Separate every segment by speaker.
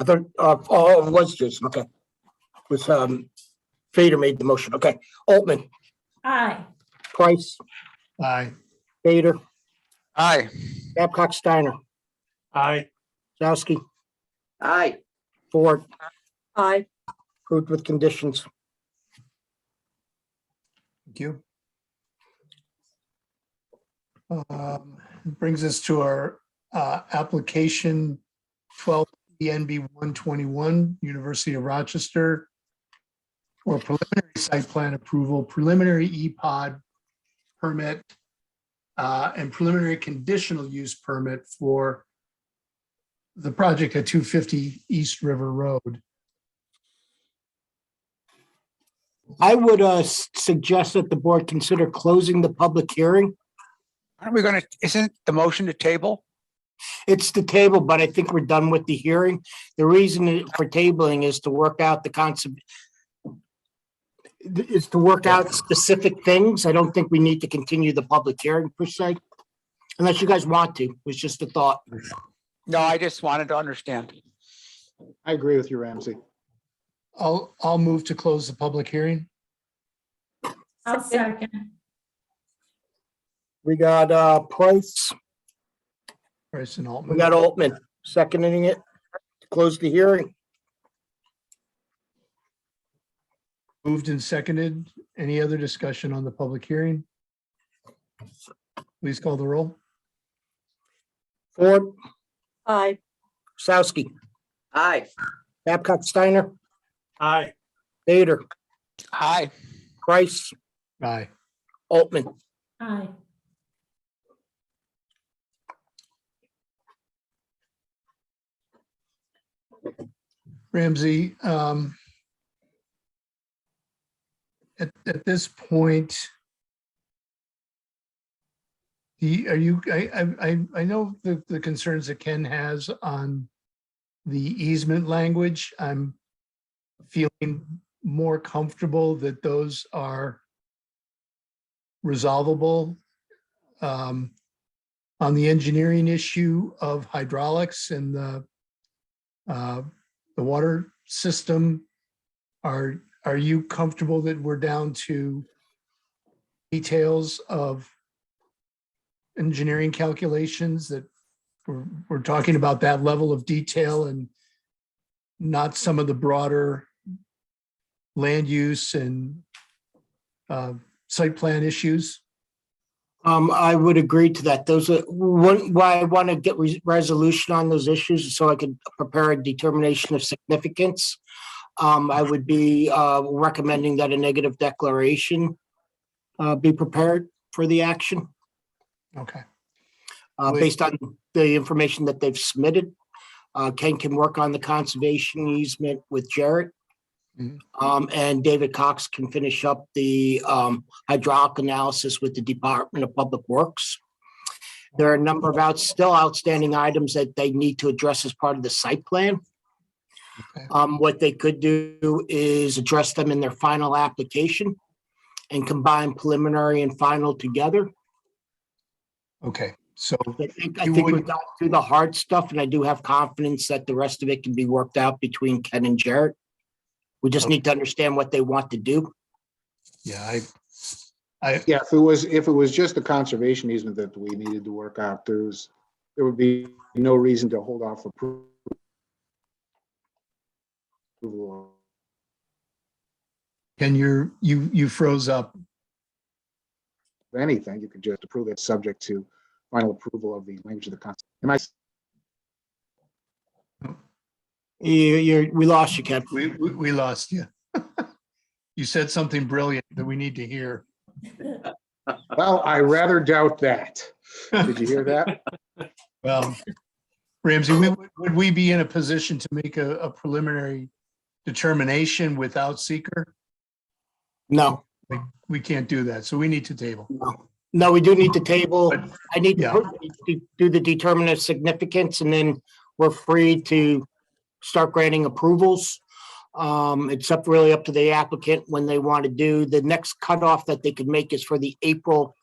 Speaker 1: I thought, uh, oh, it was Jason, okay. Was, um, Fader made the motion, okay. Altman,
Speaker 2: Aye.
Speaker 1: Price,
Speaker 3: Aye.
Speaker 1: Fader,
Speaker 4: Aye.
Speaker 1: Babcock, Steiner,
Speaker 3: Aye.
Speaker 1: Zowski,
Speaker 5: Aye.
Speaker 1: Ford,
Speaker 5: Aye.
Speaker 1: approved with conditions.
Speaker 3: Thank you. Um, Brings us to our uh, application 12 ENB 121, University of Rochester. For preliminary site plan approval, preliminary EPOD permit. uh, And preliminary conditional use permit for the project at 250 East River Road.
Speaker 1: I would, uh, s- suggest that the board consider closing the public hearing.
Speaker 4: Aren't we gonna, isn't the motion to table?
Speaker 1: It's the table, but I think we're done with the hearing. The reason for tabling is to work out the concept is to work out specific things. I don't think we need to continue the public hearing per se. Unless you guys want to, It's just a thought.
Speaker 4: No, I just wanted to understand.
Speaker 6: I agree with you, Ramsey.
Speaker 3: I'll, I'll move to close the public hearing.
Speaker 2: I'll second.
Speaker 1: We got, uh, Price,
Speaker 3: Bryce and Altman.
Speaker 1: we got Altman seconding it. Close the hearing.
Speaker 3: Moved and seconded. Any other discussion on the public hearing? Please call the roll.
Speaker 1: Ford,
Speaker 5: Aye.
Speaker 1: Sowski,
Speaker 5: Aye.
Speaker 1: Babcock, Steiner,
Speaker 6: Aye.
Speaker 1: Vader,
Speaker 4: Aye.
Speaker 1: Price,
Speaker 3: Aye.
Speaker 1: Altman.
Speaker 2: Aye.
Speaker 3: Ramsey, um, at, at this point, the, are you, I, I, I, I know the, the concerns that Ken has on the easement language. I'm feeling more comfortable that those are resolvable. Um, on the engineering issue of hydraulics and the uh, the water system. Are, are you comfortable that we're down to details of engineering calculations that we're, we're talking about that level of detail and not some of the broader land use and uh, site plan issues?
Speaker 1: Um, I would agree to that. Those are, one, why I want to get re- resolution on those issues is so I could prepare a determination of significance. Um, I would be, uh, recommending that a negative declaration, uh, be prepared for the action,
Speaker 3: Okay,
Speaker 1: uh,
Speaker 3: Wait.
Speaker 1: based on the information that they've submitted. Uh, Ken can work on the conservation easement with Jarrett.
Speaker 3: Mhm.
Speaker 1: Um, and David Cox can finish up the, um, hydraulic analysis with the Department of Public Works. There are a number of out, still outstanding items that they need to address as part of the site plan.
Speaker 3: Okay.
Speaker 1: Um, what they could do is address them in their final application and combine preliminary and final together.
Speaker 3: okay, so,
Speaker 1: I think, I
Speaker 3: You
Speaker 1: think
Speaker 3: would-
Speaker 1: we got through the hard stuff and I do have confidence that the rest of it can be worked out between Ken and Jarrett. We just need to understand what they want to do.
Speaker 3: yeah, I, I,
Speaker 6: Yeah, if it was, if it was just the conservation easement that we needed to work out, there's, there would be no reason to hold off appro- approval.
Speaker 3: Ken, you're, you, you froze up.
Speaker 6: of Anything, you could just approve it subject to final approval of the language of the con. Am I,
Speaker 1: You, you're, we lost you, Ken.
Speaker 3: We, we, we lost you. You said something brilliant that we need to hear.
Speaker 6: well, I rather doubt that. Did you hear that?
Speaker 3: Well, Um, Ramsey, we- would we be in a position to make a, a preliminary determination without seeker?
Speaker 1: No,
Speaker 3: We can't do that, so we need to table.
Speaker 1: no, we do need to table. I need to
Speaker 3: Yeah.
Speaker 1: put- to do the determinant of significance and then we're free to start granting approvals. Um, it's up really up to the applicant when they want to do. The next cutoff that they could make is for the April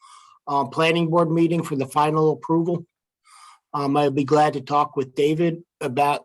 Speaker 1: uh, planning board meeting for the final approval. Um, I'd be glad to talk with David about